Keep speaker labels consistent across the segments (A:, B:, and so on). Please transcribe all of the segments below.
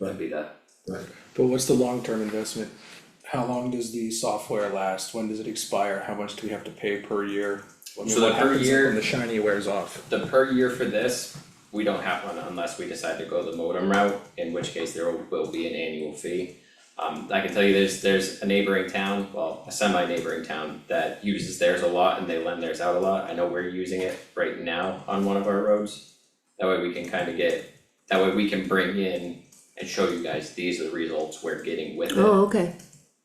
A: that'd be the,
B: But what's the long-term investment? How long does the software last? When does it expire? How much do we have to pay per year? I mean,
A: So the
B: what
A: per
B: happens
A: year-
B: When the shiny wears off,
A: the per year for this, we don't have one unless we decide to go the modem route, in which case there will be an annual fee. Um, I can tell you there's, there's a neighboring town, well, a semi-neighboring town that uses theirs a lot and they lend theirs out a lot, I know we're using it right now on one of our roads. That way we can kind of get, that way we can bring in and show you guys, these are the results we're getting with it,
C: Oh, okay,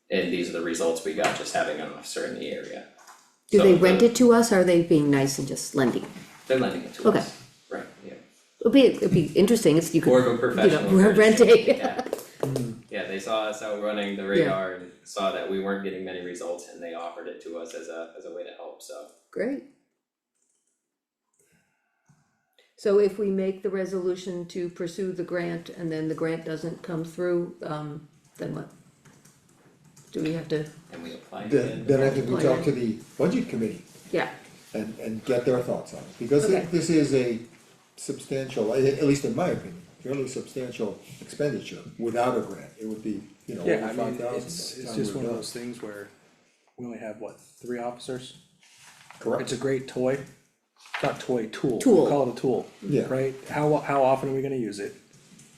A: and these are the results we got just having an officer in the area.
C: do
A: So
C: they
A: the-
C: rent it to us, or are they being nice and just lending?
A: They're lending it to us.
C: Okay.
A: Right, yeah.
C: It'd be, it'd be interesting if you could.
A: More of a professional.
C: we're
A: courtesy,
C: renting.
A: Yeah, Mm-hmm. Yeah, they saw us out running the radar and saw that we weren't getting many results and they offered it to us as a, as a way to help, so.
C: Great. So if we make the resolution to pursue the grant and then the grant doesn't come through, um, then what? Do we have to,
A: And we applied
D: Then,
A: again.
D: then I think we talk to the budget committee
C: yeah,
D: and, and get their thoughts on it, because
C: Okay.
D: thi- this is a substantial, a- at least in my opinion, fairly substantial expenditure without a grant, it would be, you know,
B: yeah, I
D: over five
B: mean,
D: thousand.
B: it's, it's just one of those things where we only have, what, three officers? It's
D: Correct,
B: a great toy, not toy, tool,
C: Tool.
B: we call it a tool,
D: Yeah.
B: right? How, how often are we gonna use it?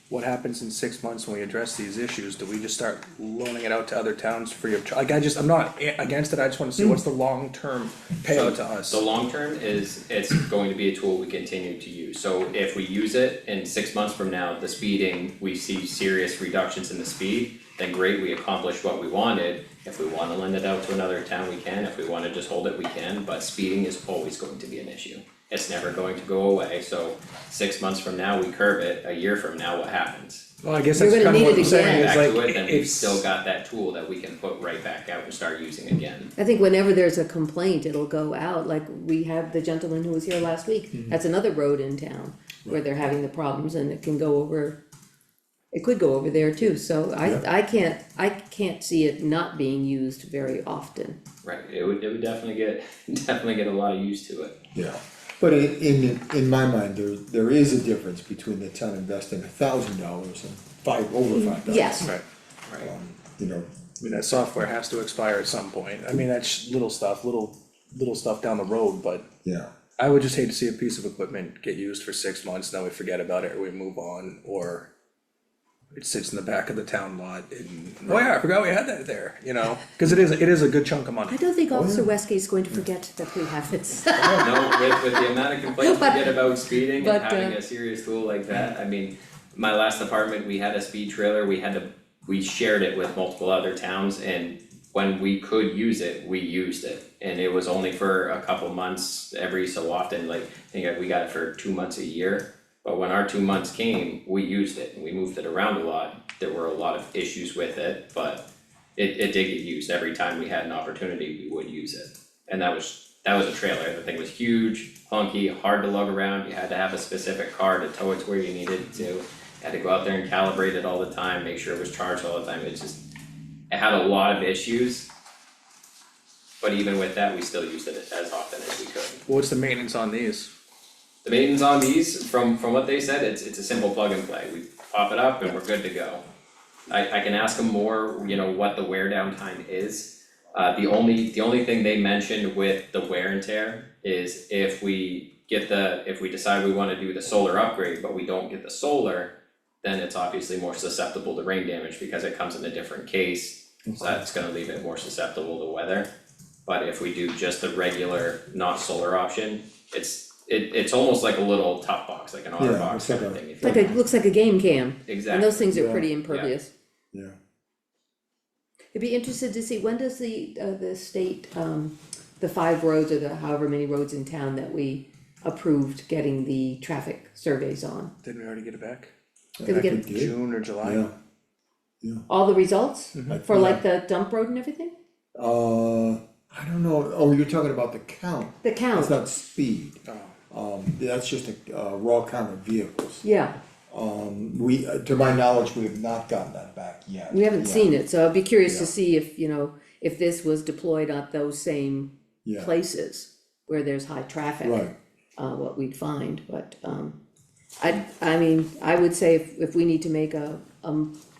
B: What happens in six months when we address these issues? Do we just start loaning it out to other towns free of charge? Like, I just, I'm not a- against it, I just wanna see what's the long-term payout to us?
A: The long term is, it's going to be a tool we continue to use, so if we use it in six months from now, the speeding, we see serious reductions in the speed. Then great, we accomplished what we wanted, if we wanna lend it out to another town, we can, if we wanna just hold it, we can, but speeding is always going to be an issue. It's never going to go away, so six months from now, we curb it, a year from now, what happens?
B: Well, I guess
C: You're
B: that's
C: gonna
B: kind of
C: need
B: what
C: it
B: I'm saying,
C: again.
B: is
A: Back
B: like,
A: to it, then we've
B: it's-
A: still got that tool that we can put right back out and start using again.
C: I think whenever there's a complaint, it'll go out, like we have the gentleman who was here last week,
D: Mm-hmm.
C: that's another road in town. Where they're having the problems and it can go over, it could go over there too, so I, I can't, I can't see it not being used very often.
A: Right, it would, it would definitely get, definitely get a lot of use to it.
D: yeah, but in, in, in my mind, there, there is a difference between the town investing a thousand dollars and five, over five thousand. Um,
C: Yes,
B: Right.
A: Right.
D: You know,
B: I mean, that software has to expire at some point, I mean, that's little stuff, little, little stuff down the road, but
D: yeah,
B: I would just hate to see a piece of equipment get used for six months, then we forget about it, or we move on, or it sits in the back of the town lot and, oh yeah, I forgot we had that there, you know, cause it is, it is a good chunk of
C: I
B: money.
C: don't think
D: Oh,
C: Officer Westgate's going to forget that we have this.
A: No, with, with the amount of complaints we
C: But-
A: get about speeding and
C: but,
A: having
C: uh,
A: a serious tool like that, I mean, my last apartment, we had a speed trailer, we had to, we shared it with multiple other towns and when we could use it, we used it. And it was only for a couple months every so often, like, I think we got it for two months a year. But when our two months came, we used it and we moved it around a lot. There were a lot of issues with it, but it, it did get used. Every time we had an opportunity, we would use it. And that was, that was a trailer. The thing was huge, clunky, hard to lug around. You had to have a specific car to tow it to where you needed it to. Had to go out there and calibrate it all the time, make sure it was charged all the time. It just, it had a lot of issues. But even with that, we still used it as often as we could.
B: What's the maintenance on these?
A: The maintenance on these, from from what they said, it's it's a simple plug and play, we pop it up and we're good to go. I I can ask them more, you know, what the wear down time is. Uh the only, the only thing they mentioned with the wear and tear is if we get the, if we decide we wanna do the solar upgrade, but we don't get the solar. Then it's obviously more susceptible to rain damage because it comes in a different case, so that's gonna leave it more susceptible to weather. But if we do just the regular, not solar option, it's, it, it's almost like a little top box, like an otter
D: Yeah, it's
A: box
D: like
A: kind of
D: a-
A: thing, if
C: It's
A: you
C: Like, it looks like a game cam, and
A: exactly,
C: those things are
D: Yeah.
C: pretty impervious.
D: yeah.
C: I'd be interested to see, when does the, uh, the state, um, the five roads or the however many roads in town that we approved getting the traffic surveys on?
B: Didn't we already get it back?
C: Did we
B: Back
C: get
B: in
C: it?
B: June or July?
D: Yeah,
C: All the results
D: I-
C: for like the dump road and everything?
D: Uh, I don't know, oh, you're talking about the count,
C: The
D: it's
C: count,
D: not speed.
B: Oh.
D: Um, that's just a, uh, raw count of vehicles.
C: yeah,
D: We, uh, to my knowledge, we have not gotten that back yet.
C: we haven't
D: Yeah,
C: seen it, so I'd be curious to
D: Yeah.
C: see if, you know, if this was deployed at those same
D: Yeah.
C: places where there's high traffic.
D: Right,
C: uh, what we'd find, but, um, I, I mean, I would say if, if we need to make a, um,